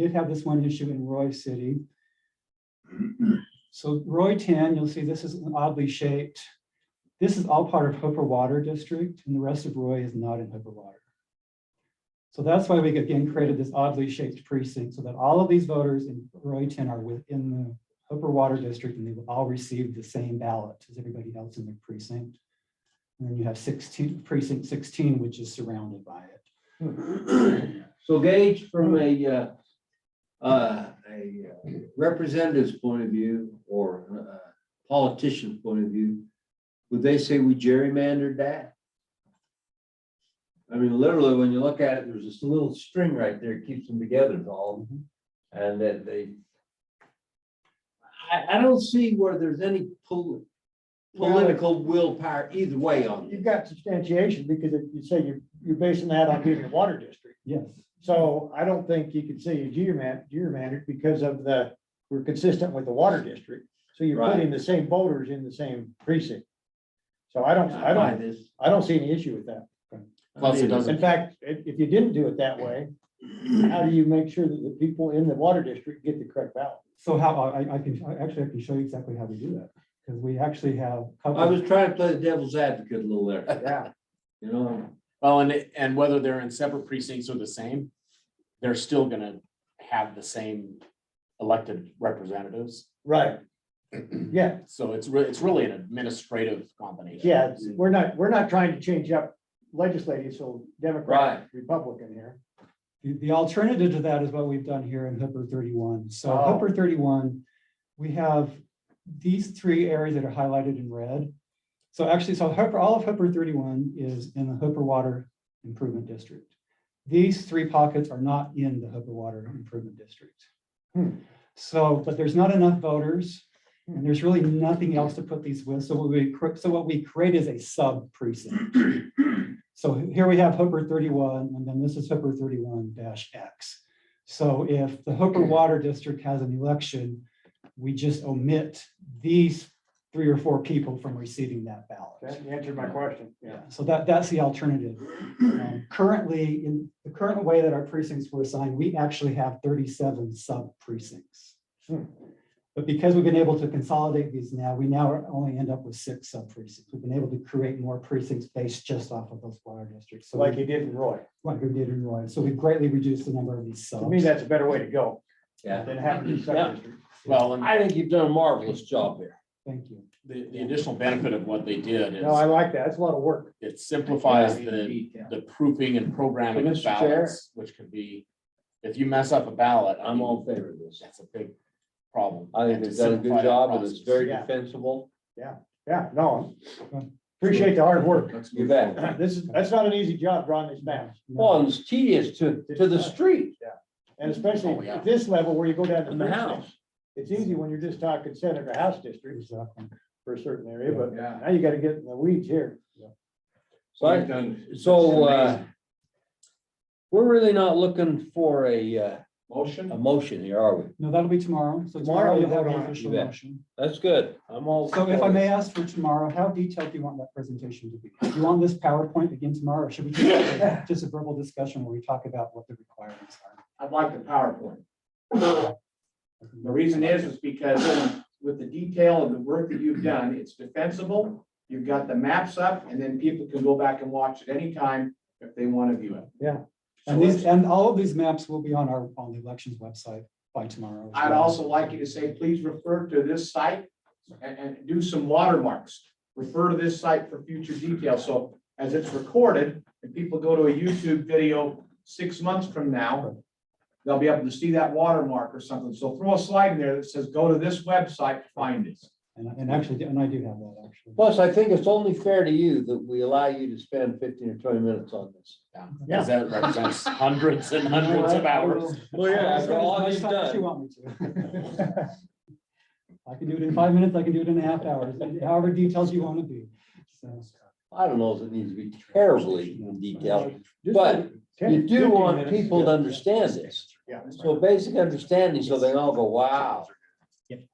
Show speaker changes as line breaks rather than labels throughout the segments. did have this one issue in Roy City. So Roy ten, you'll see this is oddly shaped. This is all part of Hooper Water District and the rest of Roy is not in Hooper Water. So that's why we again created this oddly shaped precinct so that all of these voters in Roy ten are within the Hooper Water District and they will all receive the same ballot as everybody else in their precinct. And then you have sixteen, precinct sixteen, which is surrounded by it.
So Gage, from a, uh, uh, a uh, representative's point of view or a politician's point of view, would they say we gerrymandered that? I mean, literally, when you look at it, there's this little string right there, keeps them together, is all, and that they. I, I don't see where there's any pol-
Well,
political willpower either way on
You've
it.
got substantiation because if you say you're, you're basing that on being a water district.
Yes,
So I don't think you could say you geoman, geomantic because of the, we're consistent with the water district. So you're
Right.
putting the same voters in the same precinct. So I don't, I
buy
don't,
this.
I don't see any issue with that.
Plus, it doesn't-
In fact, if, if you didn't do it that way, how do you make sure that the people in the water district get the correct ballot?
so how, I, I can, I actually, I can show you exactly how we do that, because we actually have. a couple-
I was trying to play the devil's advocate a little there,
Yeah.
you know?
Well, and, and whether they're in separate precincts or the same, they're still gonna have the same elected representatives.
Right. Yeah,
So it's really, it's really an administrative combination.
yeah, it's- we're not, we're not trying to change up legislative, so Democrat, Republican here.
The, the alternative to that is what we've done here in Hooper thirty-one. So
Oh.
Hooper thirty-one, we have these three areas that are highlighted in red. So actually, so Hooper, all of Hooper thirty-one is in the Hooper Water Improvement District. These three pockets are not in the Hooper Water Improvement District.
Hmm.
So, but there's not enough voters,
Hmm.
and there's really nothing else to put these with. So what we, cr- so what we create is a sub precinct. So here we have Hooper thirty-one, and then this is Hooper thirty-one X. So if the Hooper Water District has an election, we just omit these three or four people from receiving that ballot.
That answered my question, yeah.
Yeah, so that, that's the alternative. Um, Currently, in the current way that our precincts were assigned, we actually have thirty-seven sub precincts.
Hmm.
But because we've been able to consolidate these now, we now are- only end up with six sub precincts. We've been able to create more precincts based just off of those water districts. So
Like you did in Roy.
like we did in Roy. So we greatly reduced the number of these subs.
To me, that's a better way to go
Yeah.
than having a sub-district.
Well, and
I think you've done a marvelous job there.
Thank you.
the, the additional benefit of what they did
No, I
is
like that. It's a lot of work.
it simplifies the, the proofing and programming of
So, Mr. Chair?
ballots, which could be, if you mess up a ballot, I
I'm
mean,
all in favor of this.
That's a big problem.
I think
And to
they've done a
simplify
good
the
job and it's
process.
very
Yeah.
defensible.
Yeah, no. Appreciate the hard work.
Let's
You
move
bet.
forward.
This is, that's not an easy job drawing these maps,
Well, and it's tedious to, to the street
and
Oh,
especially
yeah.
at this level where you go down to
in the house.
It's easy when you're just talking Senator House districts
Exactly.
for a certain area, but
Yeah.
now you gotta get in the weeds here.
Right. So, uh, we're really not looking for a, uh,
Motion?
a motion here, are we?
No, that'll be tomorrow. So
Tomorrow
tomorrow
we
you'll have
vote
an
on it,
official
you bet.
motion.
That's good. I'm all.
So if I
for it.
may ask for tomorrow, how detailed do you want that presentation to be? Do you want this PowerPoint again tomorrow? Or should we just have just a verbal discussion where we talk about what the requirements are?
I'd like the PowerPoint. The reason is, is because with the detail of the work that you've done, it's defensible. You've got the maps up and then people can go back and watch at any time if they want to view it.
And these, and all of these maps will be on our, on the elections website by tomorrow. as
I'd
well.
also like you to say, please refer to this site and, and do some watermarks. Refer to this site for future details. So as it's recorded, if people go to a YouTube video six months from now, they'll be able to see that watermark or something. So throw a slide in there that says, go to this website to find it.
And, and actually, and I do have that actually.
Plus, I think it's only fair to you that we allow you to spend fifteen or twenty minutes on this.
Yeah,
Yeah.
because that represents hundreds and hundreds of hours.
Well, yeah,
I'll spend as
all
much
you've
time as
done.
You want me to. I can do it in five minutes, I can do it in a half hours, however detailed you want to be. So,
I don't know if it needs to be terribly detailed.
Just
But
ten-
you do
15
want
minutes is
people to
good.
understand this.
Yeah.
So basic understanding, so they all go, wow,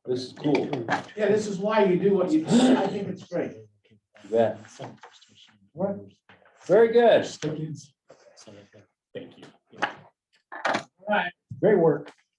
this is cool.
Yeah, this is why you do what you do. I think it's great.
You bet. Very good.
Thank you.
All right,
Great work.